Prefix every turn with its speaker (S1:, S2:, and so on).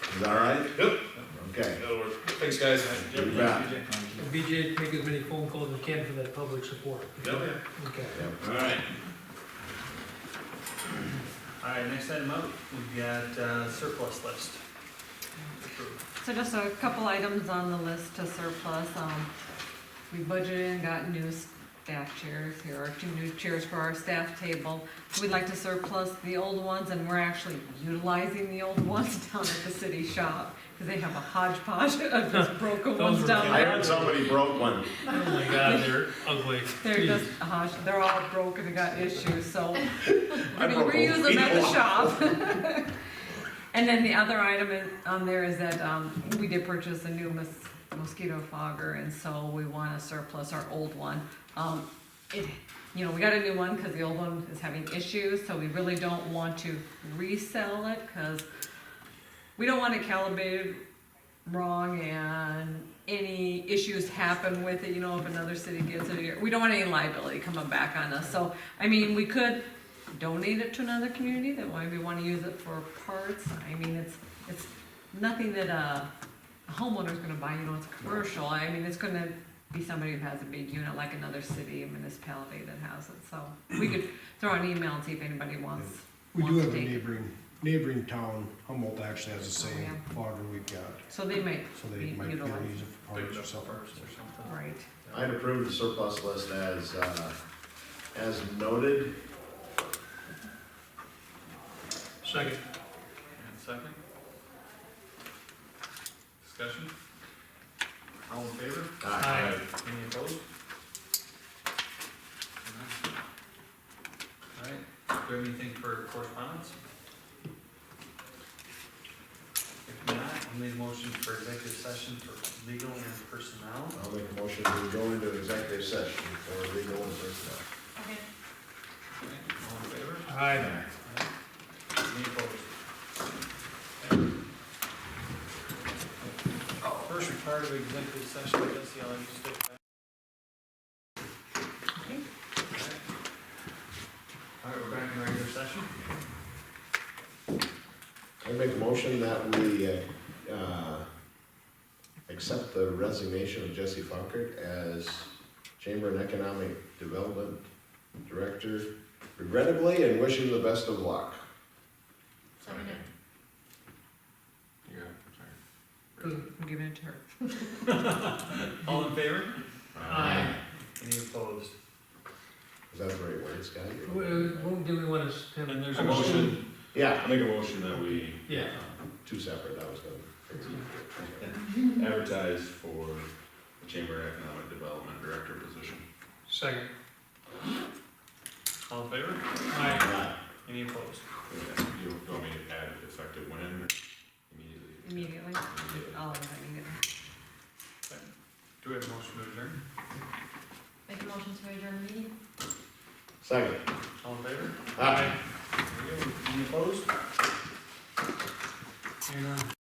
S1: Is that all right?
S2: Yep.
S1: Okay.
S2: That'll work. Thanks, guys.
S1: You bet.
S3: And BJ, make as many phone calls as you can for that public support.
S2: Yep.
S3: Okay.
S4: All right. All right, next item up, we've got uh, surplus list.
S5: So just a couple items on the list to surplus. Um, we budgeted and got new staff chairs. Here are two new chairs for our staff table. We'd like to surplus the old ones and we're actually utilizing the old ones down at the city shop because they have a hodgepodge of just broken
S3: Those
S5: ones
S3: were
S5: down
S3: bad.
S1: I
S5: there.
S1: heard somebody broke one.
S3: Oh my god, they're ugly.
S5: They're just, a hodge. they're all broken and got issues, so
S1: I
S5: I mean,
S1: broke
S5: reuse them at
S1: a
S5: the
S1: lot.
S5: shop. And then the other item in- on there is that um, we did purchase a new mos- mosquito fogger, and so we want to surplus our old one. Um, It, you know, we got a new one because the old one is having issues, so we really don't want to resell it because we don't want it calibrated wrong and any issues happen with it, you know, if another city gets it, we don't want any liability coming back on us. So, I mean, we could donate it to another community that maybe wanna use it for parts. I mean, it's, it's nothing that uh, a homeowner's gonna buy, you know, it's commercial. I mean, it's gonna be somebody who has a big unit, like another city, a municipality that has it, so we could throw an email and see if anybody wants.
S6: We do
S5: wants
S6: have a
S5: to take-
S6: neighboring, neighboring town, Humboldt actually has the
S5: Oh,
S6: same
S5: yeah.
S6: fogger we've got,
S5: So they might,
S6: so they
S5: You-
S6: might be able to
S5: utilize.
S6: use it for parts or Oh, something.
S5: right.
S1: I'd approve the surplus list as, uh, as noted.
S3: Second.
S4: And second? Discussion? All in favor?
S3: Aye.
S4: Any opposed? All right, do we have anything for correspondence? If not, I'll need a motion for executive session for legal and personnel.
S1: I'll make a motion to go into executive session for legal and personnel.
S4: All right, All in favor?
S3: Aye.
S4: Any opposed? First required of executive session, I guess, y'all need to stick back. All right, we're back in regular session.
S1: I make a motion that we, uh, uh, accept the resignation of Jesse Funkert as Chamber and Economic Development Director regrettably and wish him the best of luck.
S5: Boom, I'm giving it to her.
S4: All in favor?
S3: Aye.
S4: Any opposed?
S1: Is that the right word, Scott?
S3: Wh- wh- uh, Do we want to? s- have
S2: And there's a motion,
S1: Yeah,
S2: I make a motion that we
S3: Yeah.
S1: two separate, I was gonna.
S2: advertise for the Chamber Economic Development Director position.
S3: Second.
S4: All in favor?
S3: Aye.
S1: Uh,
S4: Any opposed?
S2: You want me to add it effective when or immediately?
S5: Immediately,
S2: Immediately.
S5: all of them immediately.
S4: Do we have a motion to adjourn?
S5: Make a motion to adjourn the meeting?
S1: Second.